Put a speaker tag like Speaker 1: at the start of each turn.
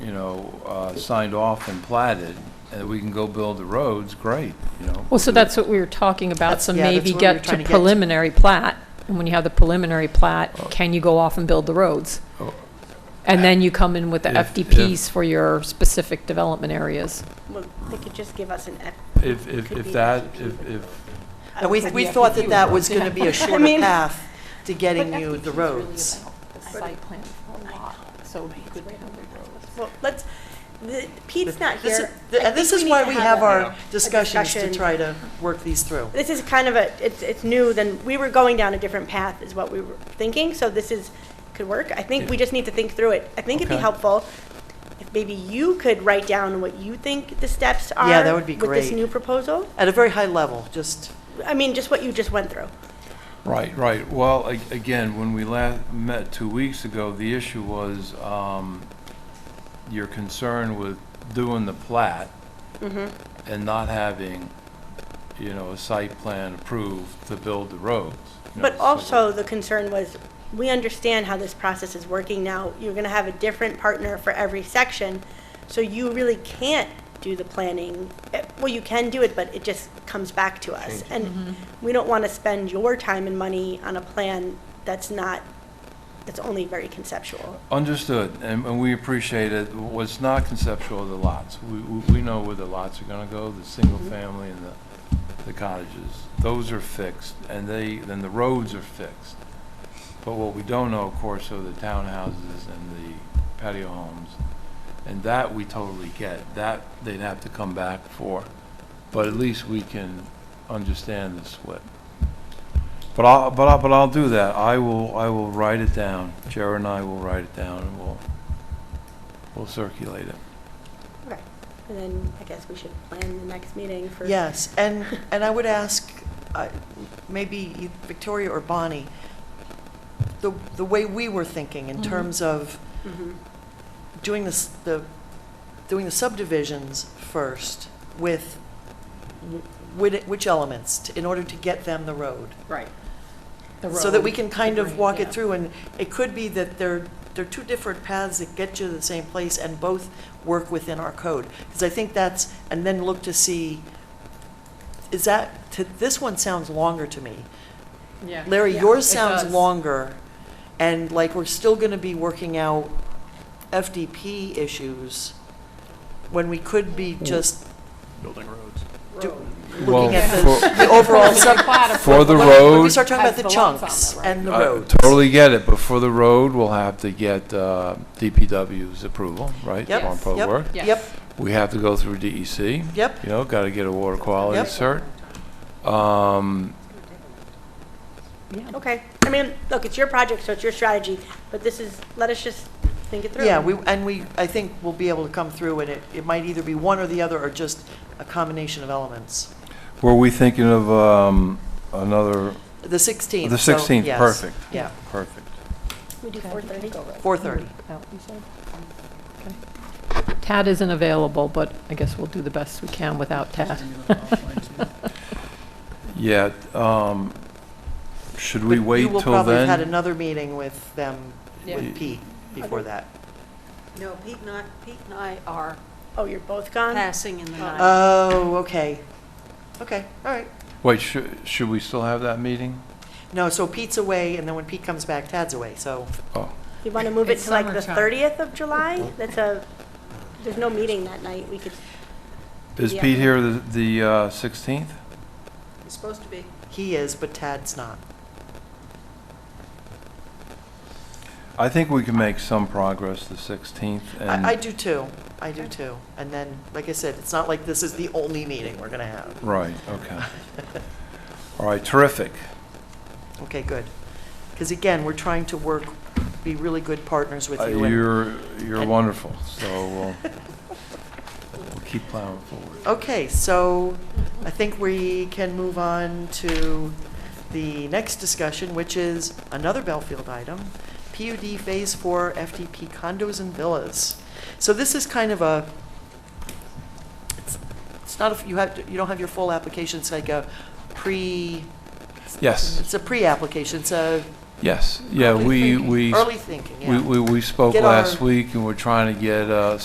Speaker 1: you know, uh, signed off and platted, and we can go build the roads, great, you know.
Speaker 2: Well, so that's what we were talking about,
Speaker 3: That's-
Speaker 2: so
Speaker 3: yeah, that's
Speaker 2: maybe
Speaker 3: what we were
Speaker 2: get to
Speaker 3: trying to get to.
Speaker 2: preliminary plat, and when you have the preliminary plat, can you go off and build the roads?
Speaker 1: Oh.
Speaker 2: And then you come in with the
Speaker 1: If- if-
Speaker 2: FDPs for your specific development areas.
Speaker 4: Well, they could just give us an. F-
Speaker 1: If, if,
Speaker 4: Could
Speaker 1: if
Speaker 4: be
Speaker 1: that, if, if,
Speaker 3: And we, we thought that that was going to be a shorter
Speaker 4: mean-
Speaker 3: path to getting you the roads.
Speaker 4: Well, let's, the- Pete's not
Speaker 3: This
Speaker 4: here.
Speaker 3: is-
Speaker 4: I
Speaker 3: And this
Speaker 4: think
Speaker 3: is
Speaker 4: we
Speaker 3: why
Speaker 4: need
Speaker 3: we
Speaker 4: to
Speaker 3: have
Speaker 4: a-
Speaker 3: our discussions to
Speaker 4: discussion.
Speaker 3: try to work these through.
Speaker 4: This is kind of a, it's, it's new, then, we were going down a different path is what we were thinking, so this is, could work. I think we just need to think through it. I think it'd be
Speaker 1: Okay.
Speaker 4: helpful if maybe you could write down what you think the steps are.
Speaker 3: Yeah, that would be
Speaker 4: With this
Speaker 3: great.
Speaker 4: new proposal.
Speaker 3: At a very high level, just,
Speaker 4: I mean, just what you just went through.
Speaker 1: right, right, well, a- again, when we last met two weeks ago, the issue was, um, your concern with doing the plat
Speaker 3: Mm-hmm.
Speaker 1: and not having, you know, a site plan approved to build the roads. you know,
Speaker 4: But
Speaker 1: so-
Speaker 4: also, the concern was, we understand how this process is working now. You're gonna have a different partner for every section, so you really can't do the planning. Eh, Well, you can do it, but it just comes back to us. And
Speaker 3: Mm-hmm.
Speaker 4: we don't wanna spend your time and money on a plan that's not, that's only very conceptual.
Speaker 1: Understood, and, and we appreciate it. What's not conceptual are the lots. We, we we know where the lots are gonna go, the single family and the, the cottages. Those are fixed, and they, then the roads are fixed. But what we don't know, of course, are the townhouses and the patio homes. And that we totally get. That they'd have to come back for. But at least we can understand the split. But I'll, but I'll, but I'll do that. I will, I will write it down. Jared and I will write it down and we'll, we'll circulate it.
Speaker 4: Okay. And then, I guess we should plan the next meeting for.
Speaker 3: yes. And, and I would ask, uh, maybe Victoria or Bonnie, the, the way we were thinking in
Speaker 2: Mhm.
Speaker 4: Mm-hmm.
Speaker 3: terms of
Speaker 4: Mhm.
Speaker 3: doing this, the, doing the subdivisions first with, whi- which elements, t- in order to get them the road.
Speaker 2: Right.
Speaker 3: So that we can kind of walk it through, and it could be that there, there are two different paths that get you to the same place, and both work within our code. Because I think that's, and then look to see, is that, to- this one sounds longer to me. Larry,
Speaker 2: Yeah,
Speaker 3: yours
Speaker 2: it
Speaker 3: sounds
Speaker 2: does.
Speaker 3: longer, and like, we're still gonna be working out FDP issues, when we could be just
Speaker 5: building roads.
Speaker 3: do-
Speaker 1: Well,
Speaker 3: looking at
Speaker 1: for-
Speaker 3: the, the overall sub.
Speaker 1: For the
Speaker 3: when- When we
Speaker 1: road,
Speaker 3: start talking about
Speaker 2: Has
Speaker 3: the
Speaker 2: the lots on
Speaker 3: chunks
Speaker 2: the road.
Speaker 3: and the
Speaker 1: I
Speaker 3: roads.
Speaker 1: totally get it, but for the road, we'll have to get uh, DPW's approval, right?
Speaker 3: Yep,
Speaker 1: On
Speaker 3: yep.
Speaker 1: public work.
Speaker 2: Yes.
Speaker 3: Yep,
Speaker 1: We have to go through DEC.
Speaker 3: yep.
Speaker 1: You know, got to get a water quality
Speaker 3: Yep.
Speaker 1: cert. Um,
Speaker 4: Okay. I mean, look, it's your project, so it's your strategy, but this is, let us just think it through.
Speaker 3: Yeah, we, and we, I think we'll be able to come through and it, it might either be one or the other or just a combination of elements.
Speaker 1: Were we thinking of um, another,
Speaker 3: The 16th.
Speaker 1: the
Speaker 3: so
Speaker 1: 16th?
Speaker 3: yes.
Speaker 1: Perfect.
Speaker 3: Yeah,
Speaker 1: Perfect.
Speaker 4: We do four thirty.
Speaker 3: 4:30.
Speaker 2: Tad isn't available, but I guess we'll do the best we can without Tad.
Speaker 1: Yeah, um, should we
Speaker 3: But
Speaker 1: wait
Speaker 3: You will
Speaker 1: till
Speaker 3: probably have had
Speaker 1: then?
Speaker 3: another meeting with them,
Speaker 1: Yeah.
Speaker 3: with Pete, before that.
Speaker 6: No, Pete and I, Pete and I are
Speaker 4: Oh, you're both gone?
Speaker 6: passing in the night.
Speaker 3: Oh, okay. Okay, all right.
Speaker 1: Wait, should, should we still have that meeting?
Speaker 3: No, so Pete's away and then when Pete comes back, Tad's away, so.
Speaker 1: Oh,
Speaker 4: You want to move it
Speaker 2: It's
Speaker 4: to like the
Speaker 2: summertime.
Speaker 4: 30th of July? That's a, there's no meeting that night, we could,
Speaker 1: is
Speaker 4: Yeah.
Speaker 1: Pete here the, the uh, 16th?
Speaker 6: It's supposed to be.
Speaker 3: He is, but Tad's not.
Speaker 1: I think we can make some progress the 16th and.
Speaker 3: I, I do too. I do too. And then, like I said, it's not like this is the only meeting we're gonna have.
Speaker 1: Right, okay. All right, terrific.
Speaker 3: Okay, good. Because again, we're trying to work, be really good partners with
Speaker 1: Uh,
Speaker 3: you. and-
Speaker 1: You're, you're
Speaker 3: and-
Speaker 1: wonderful, so we'll, we'll keep plowing forward.
Speaker 3: Okay, so I think we can move on to the next discussion, which is another Belfield item, PUD Phase 4 FDP condos and villas. So this is kind of a, it's- it's not, a- you have, to- you don't have your full application, it's like a pre,
Speaker 1: Yes,
Speaker 3: it's a pre-application, it's a
Speaker 1: yes, yeah,
Speaker 3: early
Speaker 1: we,
Speaker 3: thinking-
Speaker 1: we,
Speaker 3: early thinking, yeah.
Speaker 1: we, we we spoke
Speaker 3: Get our-
Speaker 1: last week and we're trying to get, uh,